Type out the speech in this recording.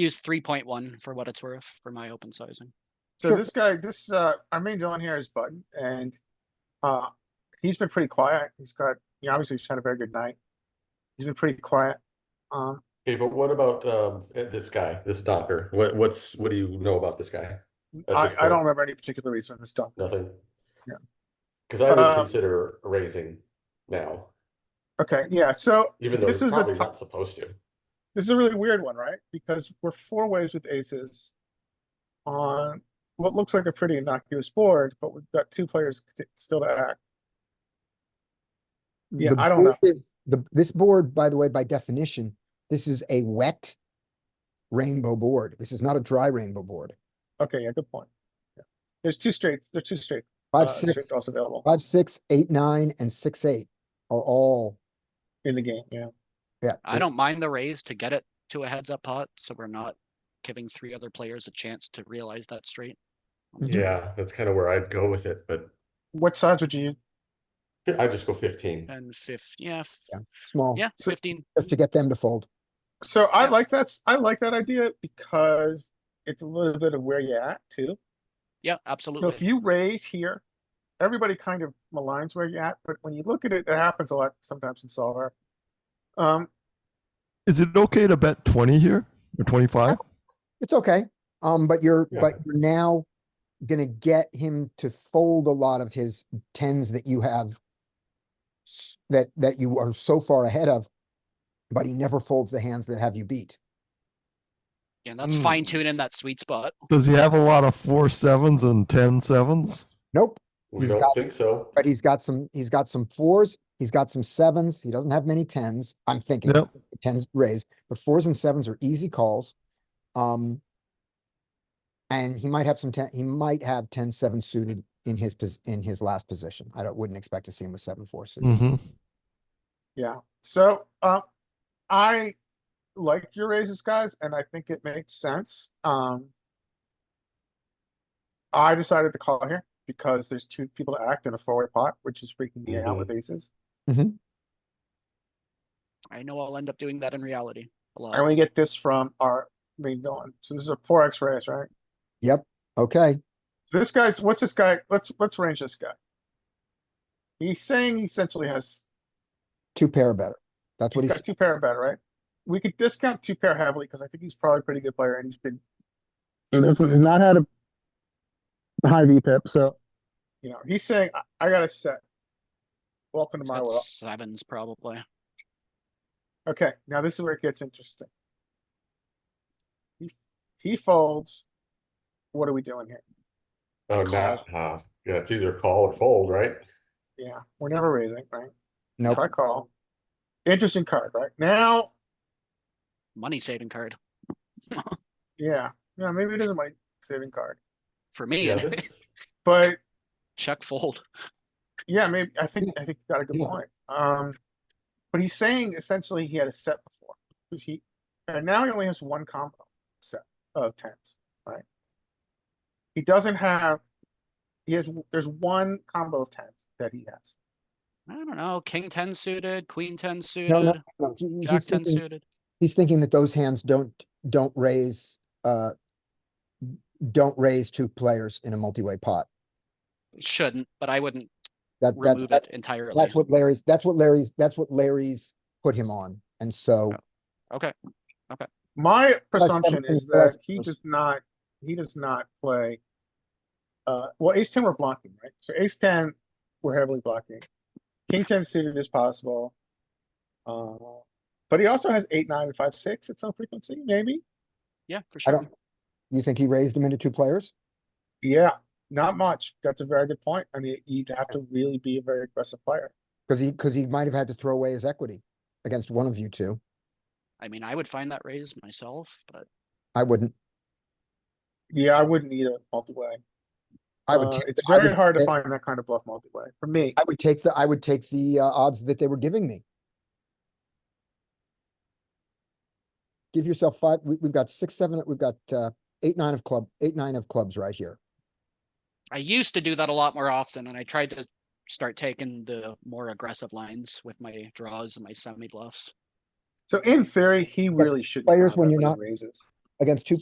use three point one for what it's worth for my open sizing. So Sure. this guy, this, uh, our main villain here is Button and, uh, he's been pretty quiet. He's got, you know, obviously he's had a very good night. He's been pretty quiet. Um, Okay, but what about um eh, this guy, this doctor? What what's what do you know about this guy? At I, this I don't point, remember any particular reason for this stuff. Nothing. Yeah. Because I would Um, consider raising now, Okay, yeah, so even though this it's is a probably tou- not supposed to. This is a really weird one, right? Because we're four ways with aces on what looks like a pretty innocuous board, but we've got two players t- still to act. Yeah, The I don't know. board is- The, this board, by the way, by definition, this is a wet rainbow board. This is not a dry rainbow board. Okay, yeah, good point. Yeah. There's two straights, there's two straight, uh, Five, straight six, draws available five, six, eight, nine, and six, eight are all, in the game, yeah. yeah. I don't mind the raise to get it to a heads up pot, so we're not giving three other players a chance to realize that straight. Mm-hmm. Um, Mhm. Yeah, that's kind of where I'd go with it, but What size would you use? I just go fifteen. And fif, yeah, f- Yeah. Small, yeah, So- fifteen. just to get them to fold. So I Yeah. like that, s- I like that idea because it's a little bit of where you're at too. Yeah, So if absolutely. you raise here, everybody kind of maligns where you're at, but when you look at it, it happens a lot sometimes in solver. Um, Is it okay to bet 20 here or 25? It's okay. Um, but you're, Yeah. but you're now gonna get him to fold a lot of his tens that you have s- that, that you are so far ahead of, but he never folds the hands that have you beat. Yeah, that's Hmm. fine tuning that sweet spot. Does he have a lot of four sevens and ten sevens? Nope. We He's don't got- think so. But he's got some, he's got some fours, he's got some sevens, he doesn't have many tens, I'm thinking, Yep. tens raise, but fours and sevens are easy calls. Um. And he might have some ten, he might have ten, seven suited in his, pos- in his last position. I don't, wouldn't expect to see him with seven, four suited. Mm-hmm. yeah, so, uh, I like your raises, guys, and I think it makes sense, um. I decided to call here because there's two people to act in a four-way pot, which is freaking me out Mhm. with aces. Mm. I know I'll end up doing that in reality a And lot. we get this from our main villain, so this is a four X raise, right? Yep, okay, So this guy's, what's this guy? Let's, let's range this guy. He's saying he essentially has, two pair or better. That's what he's he's, got two pair bet, right? We could discount two pair heavily because I think he's probably a pretty good player and he's been. This has not had a high V pip, so. You know, he's saying, I, I got a set. Welcome to my world. That's sevens probably. Okay, now this is where it gets interesting. He, he folds. What are we doing here? Oh, Call. not, uh, yeah, it's either call or fold, right? Yeah, we're never raising, right? nope, Try call. Interesting card, right? Now, Money saving card Yeah, yeah, maybe it is a money saving card, for me. Yeah, anyway. this, but Check fold. yeah, maybe I think I think you got a good Yeah. point. Um, but he's saying essentially he had a set before, 'cause he, and now he only has one combo set of tens, right? He doesn't have. He has. There's one combo of tens that he has. I don't know. King ten suited, queen ten no, no, suited, no, he- he- jack he's ten thinking, suited. he's thinking that those hands don't, don't raise, uh. Don't raise two players in a multi-way pot. Shouldn't, but I wouldn't That, that, remove that, it entirely. That's what Larry's, that's what Larry's, that's what Larry's put him on. And so, Okay. My presumption something is plus that he plus. does not. He does not play. Uh, well, ace ten we're blocking, right? So ace ten, we're heavily blocking. King ten suited is possible. Uh, but he also has eight, nine, and five, six at some frequency, maybe. Yeah, for I sure. don't, you think he raised him into two players? Yeah, not much. That's a very good point. I mean, you'd have to really be a very aggressive player. Cause he, cause he might have had to throw away his equity against one of you two. I mean, I would find that raise myself, but I wouldn't, Yeah, I wouldn't either multi-way. I would. Uh, take it's the- I very would- hard to find that kind of bluff multi-way for me. I would take the, I would take the uh, odds that they were giving me. Give yourself five, we, we've got six, seven, we've got, uh, eight, nine of club, eight, nine of clubs right here. I used to do that a lot more often and I tried to start taking the more aggressive lines with my draws and my semi bluffs. So in theory, he really shouldn't. players have when that you're many not- raises. against two